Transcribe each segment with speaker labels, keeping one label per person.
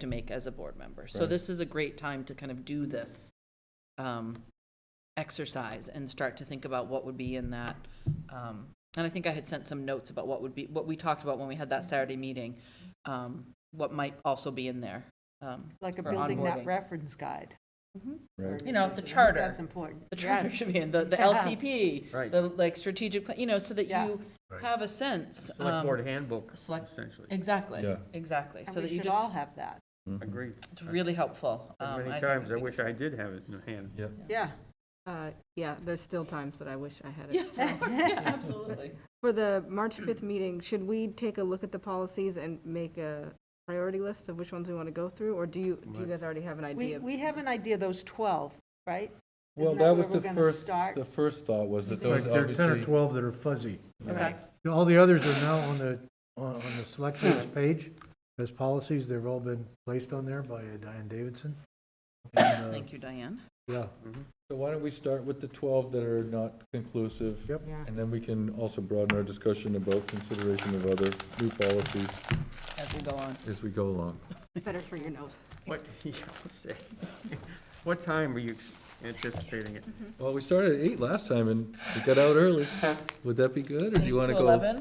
Speaker 1: to make as a board member. So
Speaker 2: Right.
Speaker 1: this is a great time to kind of do this um, exercise and start to think about what would be in that. um, And I think I had sent some notes about what would be, what we talked about when we had that Saturday meeting, um, what might also be in there. um,
Speaker 3: Like a
Speaker 1: for
Speaker 3: building that
Speaker 1: onboarding.
Speaker 3: reference guide.
Speaker 2: Right.
Speaker 1: You know, the
Speaker 3: I think
Speaker 1: charter.
Speaker 3: That's important.
Speaker 1: The charter
Speaker 3: Yes.
Speaker 1: should be in, the, the
Speaker 3: Yes.
Speaker 1: LCP,
Speaker 4: Right.
Speaker 1: the like strategic, pla- you know, so that you
Speaker 3: Yes.
Speaker 1: have a sense.
Speaker 4: Select
Speaker 1: um,
Speaker 4: board handbook,
Speaker 1: select-
Speaker 4: essentially.
Speaker 1: Exactly,
Speaker 2: Yeah.
Speaker 1: exactly.
Speaker 3: And
Speaker 1: So
Speaker 3: we
Speaker 1: that you
Speaker 3: should
Speaker 1: just,
Speaker 3: all have that.
Speaker 4: Agreed.
Speaker 1: it's really helpful.
Speaker 4: As
Speaker 1: Um,
Speaker 4: many
Speaker 1: think
Speaker 4: times, I
Speaker 1: it'd be-
Speaker 4: wish I did have it in hand.
Speaker 2: Yeah.
Speaker 3: Yeah.
Speaker 5: Uh, Yeah, there's still times that I wish I had it.
Speaker 1: Yeah, yeah, absolutely.
Speaker 5: For the March 5th meeting, should we take a look at the policies and make a priority list of which ones we want to go through? Or do you, do you guys already have an
Speaker 3: We,
Speaker 5: idea?
Speaker 3: we have an idea, those 12, right?
Speaker 2: Well,
Speaker 3: Isn't that
Speaker 2: that was
Speaker 3: where
Speaker 2: the
Speaker 3: we're gonna
Speaker 2: first,
Speaker 3: start?
Speaker 2: the first thought was that
Speaker 6: Like
Speaker 2: those
Speaker 6: there are ten or
Speaker 2: obviously,
Speaker 6: twelve that are fuzzy.
Speaker 1: Okay.
Speaker 6: You know, All the others are now on the, on on the
Speaker 4: Hmm.
Speaker 6: selectmen's page as policies. They've all been placed on there by uh, Diane Davidson. And, uh,
Speaker 1: Thank you, Diane.
Speaker 6: Yeah,
Speaker 4: Mm-hmm.
Speaker 2: so why don't we start with the twelve that are not conclusive?
Speaker 6: Yep.
Speaker 5: Yeah.
Speaker 2: And then we can also broaden our discussion about consideration of other new policies
Speaker 1: as we go on.
Speaker 2: as we go along.
Speaker 5: Better for your nose.
Speaker 4: What, yeah, I'll say. What time were you ex- anticipating it?
Speaker 2: Well, we started at eight last time and we got out early. Would that be good, or do you want to go? Do
Speaker 1: Eleven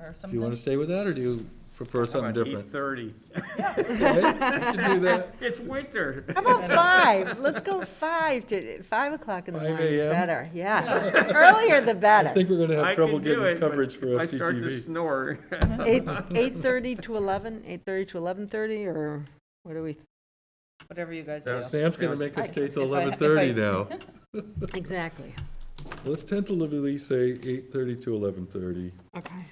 Speaker 1: or
Speaker 2: you want
Speaker 1: something?
Speaker 2: to stay with that, or do you prefer something different?
Speaker 4: Eight thirty.
Speaker 2: Okay, we can do that.
Speaker 4: It's winter.
Speaker 3: How about five? Let's go five to, five o'clock in the
Speaker 2: 5
Speaker 3: morning is
Speaker 2: a.m.?
Speaker 3: better, yeah. Earlier the better.
Speaker 2: I think we're gonna
Speaker 4: I
Speaker 2: have trouble
Speaker 4: can do it,
Speaker 2: getting
Speaker 4: but
Speaker 2: coverage for
Speaker 4: if I start to
Speaker 2: FCTV.
Speaker 4: snore.
Speaker 3: Eight, 8:30 to 11, 8:30 to 11:30, or what do we?
Speaker 1: Whatever you guys do.
Speaker 4: That's-
Speaker 2: Sam's gonna make us
Speaker 1: I-
Speaker 2: stay till
Speaker 1: if I- if I-
Speaker 2: eleven thirty now.
Speaker 3: Exactly.
Speaker 2: Let's tentatively say eight thirty to eleven thirty.
Speaker 3: Okay.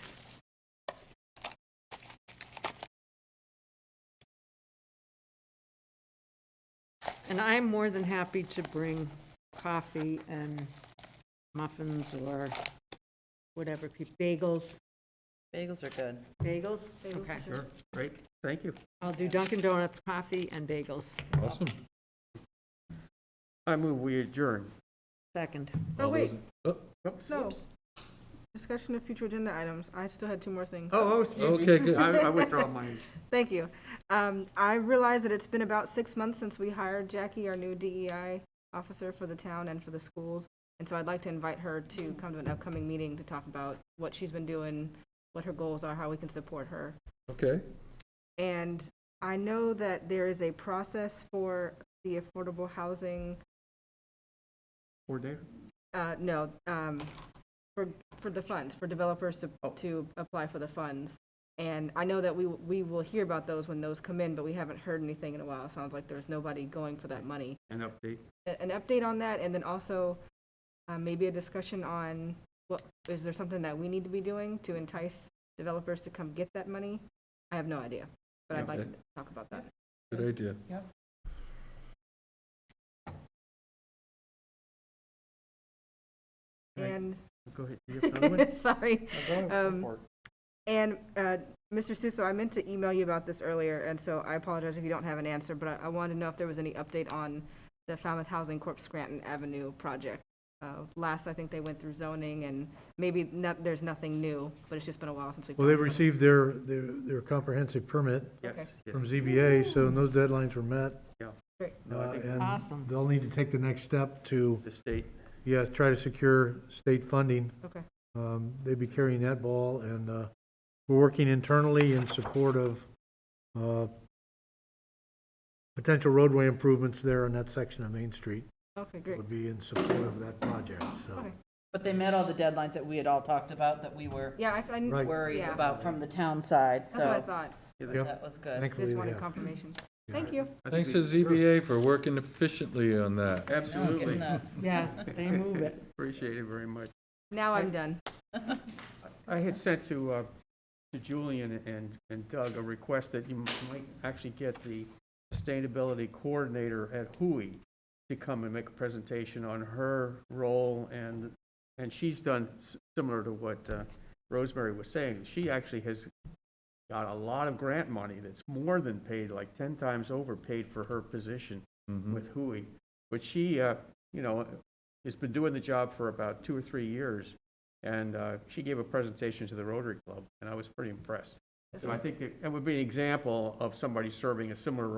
Speaker 3: And I'm more than happy to bring coffee and muffins or whatever, pe- bagels.
Speaker 1: Bagels are good.
Speaker 3: Bagels? Okay.
Speaker 4: Sure, great, thank you.
Speaker 3: I'll do Dunkin' Donuts coffee and bagels.
Speaker 2: Awesome.
Speaker 4: I move we adjourn.
Speaker 3: Second.
Speaker 5: Oh,
Speaker 2: All those
Speaker 5: wait,
Speaker 2: in- oh,
Speaker 4: Oops.
Speaker 5: no. Discussion of future agenda items. I still had two more things.
Speaker 4: Oh, oh, excuse me.
Speaker 2: Okay, good.
Speaker 4: I I withdraw mine.
Speaker 5: Thank you. Um, I realize that it's been about six months since we hired Jackie, our new DEI officer for the town and for the schools. And so I'd like to invite her to come to an upcoming meeting to talk about what she's been doing, what her goals are, how we can support her.
Speaker 2: Okay,
Speaker 5: And I know that there is a process for the affordable housing,
Speaker 4: Or there.
Speaker 5: uh, no, um, for, for the funds, for developers to, to apply for the funds. And I know that we, we will hear about those when those come in, but we haven't heard anything in a while. It sounds like there's nobody going for that money.
Speaker 4: an update.
Speaker 5: a- an update on that, and then also uh, maybe a discussion on what, is there something that we need to be doing to entice developers to come get that money? I have no idea, but I'd like to
Speaker 2: Okay.
Speaker 5: talk about that.
Speaker 2: good idea.
Speaker 4: Right.
Speaker 5: And,
Speaker 4: Go ahead. Do you have another one?
Speaker 5: sorry,
Speaker 4: No, go
Speaker 5: Um,
Speaker 4: for it.
Speaker 5: and uh, Mr. Suso, I meant to email you about this earlier, and so I apologize if you don't have an answer, but I- I wanted to know if there was any update on the Falmouth Housing Corp. Scranton Avenue project. Uh, Last, I think they went through zoning, and maybe not, there's nothing new, but it's just been a while since we've.
Speaker 6: well, they've
Speaker 5: talked about it.
Speaker 6: received their, their, their comprehensive permit
Speaker 4: Yes, yes.
Speaker 6: from ZBA, so those deadlines were met.
Speaker 4: No, I
Speaker 6: uh,
Speaker 4: think
Speaker 6: and
Speaker 3: Awesome.
Speaker 6: They'll need to take the next step to,
Speaker 4: the state,
Speaker 6: yeah, try to secure state funding.
Speaker 5: Okay.
Speaker 6: Um, They'd be carrying that ball, and uh, we're working internally in support of uh, potential roadway improvements there on that section of Main Street.
Speaker 5: Okay, great.
Speaker 6: Would be in support of that project, so.
Speaker 5: Okay.
Speaker 1: But they met all the deadlines that we had all talked about, that we were
Speaker 5: Yeah, I, I kn-
Speaker 6: Right.
Speaker 1: worried
Speaker 5: Yeah.
Speaker 1: about from the town side,
Speaker 5: that's what I
Speaker 1: so
Speaker 5: thought.
Speaker 6: Yep.
Speaker 1: that was good.
Speaker 5: I just
Speaker 6: Thankfully, they
Speaker 5: wanted
Speaker 6: have.
Speaker 5: confirmation. Thank you.
Speaker 4: I think
Speaker 2: Thanks
Speaker 4: we-
Speaker 2: to ZBA for working efficiently on that.
Speaker 1: No, getting
Speaker 4: Absolutely.
Speaker 1: that.
Speaker 3: Yeah, they move it.
Speaker 4: Appreciate it very much.
Speaker 5: Now I'm done.
Speaker 4: I had sent to, uh, to Julian and, and Doug a request that you might actually get the sustainability coordinator at Hui to come and make a presentation on her role and, and she's done s- similar to what uh, Rosemary was saying. She actually has got a lot of grant money that's more than paid, like 10 times overpaid for her position
Speaker 2: Mhm.
Speaker 4: with Hui. But she, uh, you know, has been doing the job for about two or three years, and uh, she gave a presentation to the Rotary Club, and I was pretty impressed. So I think it it would be an example of somebody serving a similar